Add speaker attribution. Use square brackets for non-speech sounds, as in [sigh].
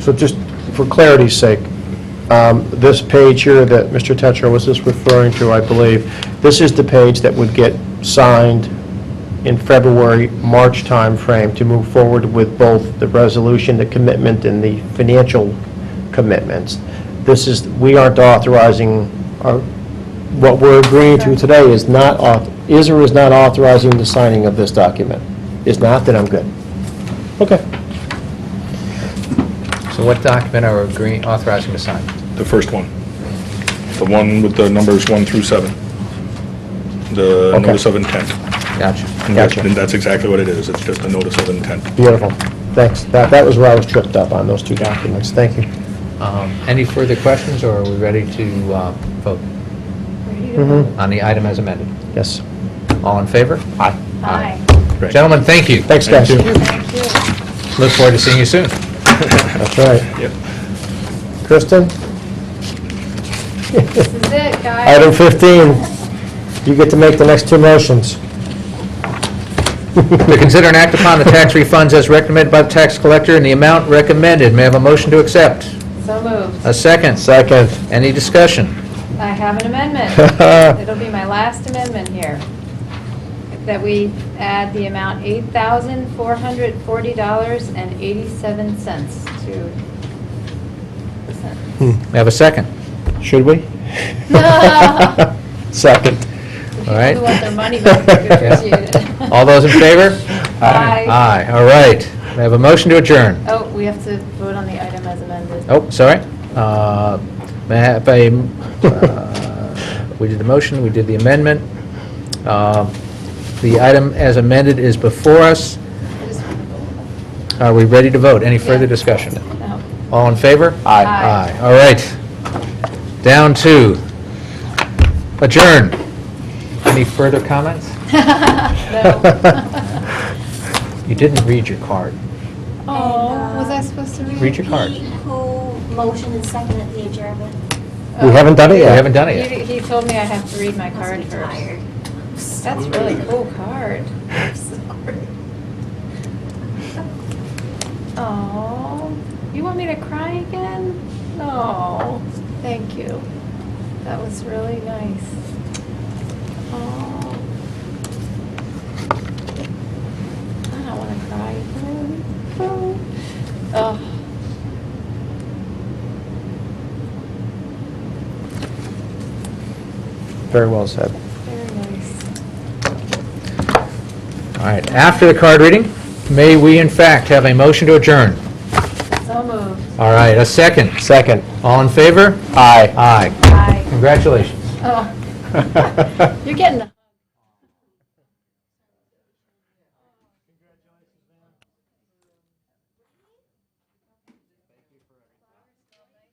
Speaker 1: So just for clarity's sake, um, this page here that Mr. Tetra was just referring to, I believe, this is the page that would get signed in February, March timeframe to move forward with both the resolution, the commitment, and the financial commitments. This is, we aren't authorizing, our- what we're agreeing to today is not, auth- is or is not authorizing the signing of this document. Is not, then I'm good. Okay.
Speaker 2: So what document are we agreeing, authorizing to sign?
Speaker 3: The first one. The one with the numbers one through seven. The
Speaker 1: Okay.
Speaker 3: notice of intent.
Speaker 2: Gotcha.
Speaker 3: And that's-
Speaker 1: Gotcha.
Speaker 3: And that's exactly what it is. It's just a notice of intent.
Speaker 1: Beautiful. Thanks. That, that was where I was tripped up on those two documents. Thank you.
Speaker 2: Um, Any further questions, or are we ready to uh, vote
Speaker 1: Mhm.
Speaker 2: on the item as amended?
Speaker 1: Yes.
Speaker 2: All in favor?
Speaker 1: Aye.
Speaker 2: Aye.
Speaker 3: Right.
Speaker 2: Gentlemen, thank you.
Speaker 1: Thanks, guys.
Speaker 3: Thank
Speaker 4: Thank you.
Speaker 2: Look forward to seeing you soon.
Speaker 1: That's right.
Speaker 3: Yep.
Speaker 1: Kristen,
Speaker 4: This is it, guys.
Speaker 1: item 15, you get to make the next two motions.
Speaker 2: To consider and act upon the tax refunds as recommended by the tax collector in the amount recommended. May I have a motion to accept?
Speaker 4: So moved.
Speaker 2: A second?
Speaker 1: Second.
Speaker 2: Any discussion?
Speaker 4: I have an amendment. It'll be my last amendment here. That we add the amount $8,440.87 to...
Speaker 2: May I have a second?
Speaker 1: Should we? [laughs] Second.
Speaker 4: If
Speaker 2: All right.
Speaker 4: People who want their money back, they appreciate it.
Speaker 2: All those in favor?
Speaker 4: Aye.
Speaker 2: Aye, all right. May I have a motion to adjourn?
Speaker 4: Oh, we have to vote on the item as amended.
Speaker 2: Oh, sorry. Uh, May I have a, uh, we did the motion, we did the amendment. Uh, The item as amended is before us.
Speaker 4: Just-
Speaker 2: Are we ready to vote? Any further
Speaker 4: Yeah.
Speaker 2: discussion?
Speaker 4: [laughs] no.
Speaker 2: All in favor?
Speaker 1: Aye.
Speaker 4: Aye.
Speaker 2: Aye, all right. Down to adjourn. Any further comments?
Speaker 4: No.
Speaker 2: You didn't read your card.
Speaker 4: Oh, was I supposed to read?
Speaker 2: Read your card.
Speaker 5: Pete, Who motioned and seconded the adjournment?
Speaker 1: We haven't done it yet.
Speaker 2: Oh. We haven't done it yet.
Speaker 4: He he told me I have to read my
Speaker 5: Must
Speaker 4: card
Speaker 5: be tired.
Speaker 4: first. That's really cool
Speaker 1: [laughs]
Speaker 4: card.
Speaker 5: I'm sorry.
Speaker 4: [laughs] Oh, you want me to cry again? No, thank you. That was really nice. Oh. I don't want to cry again. Oh. Oh.
Speaker 1: Very well said.
Speaker 4: Very nice.
Speaker 2: All right, after the card reading, may we in fact have a motion to adjourn?
Speaker 4: So moved.
Speaker 2: All right, a second.
Speaker 1: Second.
Speaker 2: All in favor?
Speaker 1: Aye.
Speaker 2: Aye.
Speaker 4: Bye.
Speaker 1: [laughs]
Speaker 2: Congratulations.
Speaker 4: Oh, [laughs] you're getting.